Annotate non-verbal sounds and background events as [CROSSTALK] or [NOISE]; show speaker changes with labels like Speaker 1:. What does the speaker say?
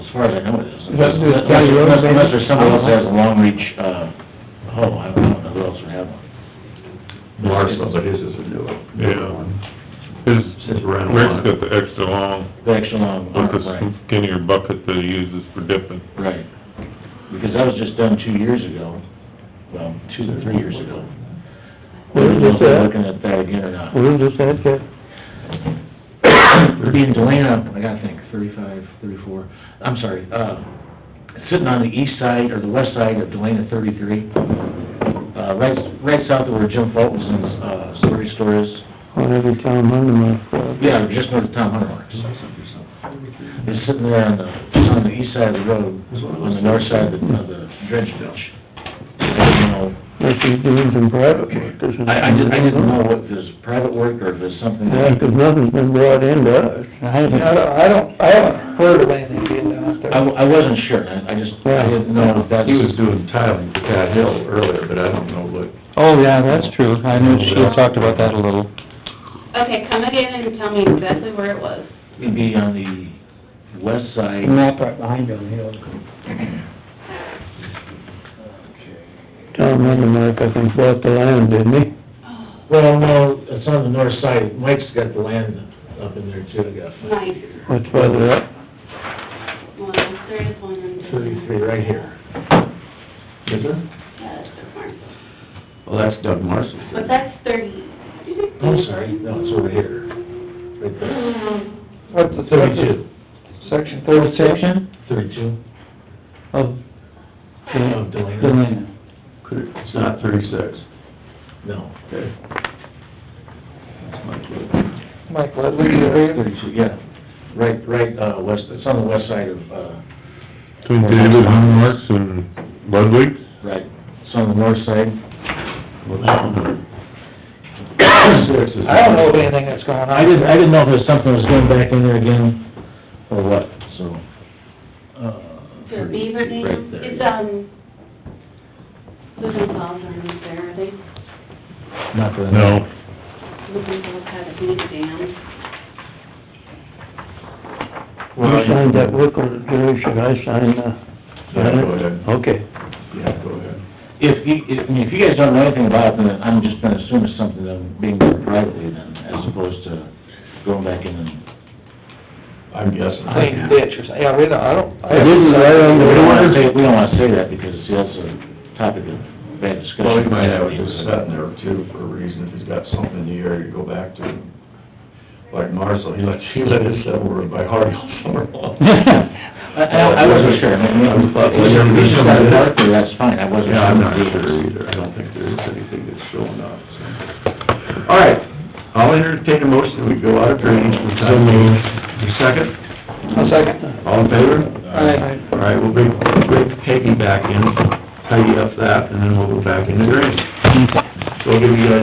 Speaker 1: far as I know, it isn't.
Speaker 2: That's the county road,
Speaker 1: Unless-
Speaker 2: maybe?
Speaker 1: Unless there's someone else that has a long reach, uh, oh, I don't know who else would have one.
Speaker 3: Larson, but his is a new one.
Speaker 4: Yeah. His,
Speaker 3: Just ran
Speaker 4: Rick's
Speaker 3: one.
Speaker 4: got the extra long,
Speaker 1: The extra long
Speaker 4: with
Speaker 1: arm,
Speaker 4: the
Speaker 1: Oh, right,
Speaker 4: skinnier bucket that he uses for dipping.
Speaker 1: right. Because that was just done two years ago, well, two or three years ago. I
Speaker 2: Where
Speaker 1: don't know
Speaker 2: is
Speaker 1: if
Speaker 2: this
Speaker 1: they're
Speaker 2: at?
Speaker 1: looking at that again or [COUGHS] not.
Speaker 2: Where is this at, Ted?
Speaker 1: They're being Delana, I gotta think, thirty-five, thirty-four, I'm sorry, uh, sitting on the east side or the west side of Delana thirty-three. Uh, right, right south of where Jim Fulton's, uh, story store is.
Speaker 2: On every town under my flood.
Speaker 1: Yeah, just north of Tom Hunter's. It's sitting there on the, on the east side of the road, on the north side of the, of the dredge ditch. You know,
Speaker 2: Unless he's doing some private work, doesn't he?
Speaker 1: I, I just, I didn't know if it was private work or if it's something
Speaker 2: Yeah,
Speaker 1: that,
Speaker 2: 'cause nothing's been brought into us. I
Speaker 5: I don't, I don't, I haven't heard of anything being done out
Speaker 1: I,
Speaker 5: there.
Speaker 1: I wasn't sure, I, I just, I didn't know if that's.
Speaker 3: He was doing tiling for Cat Hill earlier, but I don't know what,
Speaker 2: Oh, yeah, that's true, I knew she talked about that a little.
Speaker 6: Okay, come again and tell me exactly where it was.
Speaker 1: It'd be on the west side.
Speaker 5: The map right behind him, you know.
Speaker 2: Tom Undermark, I think, bought the land, didn't he?
Speaker 6: Oh,
Speaker 1: Well, no, it's on the north side, Mike's got the land up in there too, I guess.
Speaker 6: Nice.
Speaker 2: What's further up?
Speaker 6: Well, there is one in there.
Speaker 1: Thirty-three, right here.
Speaker 3: is there?
Speaker 6: Yeah, it's the farm.
Speaker 3: Well, that's Doug Marshall.
Speaker 6: But that's thirty.
Speaker 1: I'm Oh, sorry, no, it's over here, right there.
Speaker 6: Mm-hmm.
Speaker 5: What's the, what's the,
Speaker 1: Thirty-two.
Speaker 5: section thirty-six
Speaker 1: Thirty-two?
Speaker 5: of
Speaker 1: No,
Speaker 5: the
Speaker 1: Delano,
Speaker 5: land?
Speaker 3: Could it- It's not thirty-six.
Speaker 1: no.
Speaker 3: Okay. That's my clue.
Speaker 5: Mike Ledley, you hear him?
Speaker 1: Thirty-two, yeah. Right, right, uh, west, it's on the west side of, uh,
Speaker 4: Between David Hunmarks and Ludwig's,
Speaker 1: right, it's on the north side. [COUGHS]
Speaker 3: Well, that one. 36 is-
Speaker 5: I don't know of anything that's going on.
Speaker 1: I didn't, I didn't know if there's something that was going back in there again, or what, so. uh,
Speaker 6: The Beaver Dam.
Speaker 1: Right there.
Speaker 6: It's, um, the Gonzales are not there, are they?
Speaker 1: Not the.
Speaker 4: no,
Speaker 6: The Gonzales had a Beaver Dam.
Speaker 2: You signed that book on there, should I sign the...
Speaker 3: Yeah, go ahead.
Speaker 2: Okay.
Speaker 3: Yeah, go ahead.
Speaker 1: If you, if, I mean, if you guys don't know anything about it, then I'm just gonna assume it's something that being done privately then, as opposed to going back in and,
Speaker 3: I'm guessing.
Speaker 5: Clean ditch or something, yeah, we don't, I don't. I
Speaker 2: It is right on
Speaker 1: we
Speaker 2: the
Speaker 1: don't wanna
Speaker 2: water.
Speaker 1: say, we don't wanna say that because see, that's a topic of bad discussion.
Speaker 3: Well, he might have it just sitting there too for a reason, if he's got something in the area to go back to. Like Marcel, he let, he let us sit over by Hardy all summer
Speaker 1: [LAUGHS]
Speaker 3: long.
Speaker 1: I, I I wasn't sure, I mean,
Speaker 3: I'm not-
Speaker 1: if you're reaching out to Parker, that's fine, I wasn't.
Speaker 3: Yeah, I'm not sure either, I don't think there is anything that's showing up, so. All right, I'll entertain a motion, that we go out of drainage for the time being. You second?
Speaker 5: I'll second.
Speaker 3: All in favor?
Speaker 5: Aye.
Speaker 3: All right, we'll bring, bring Peggy back in, tidy up that, and then we'll go back into drainage. So we'll give you guys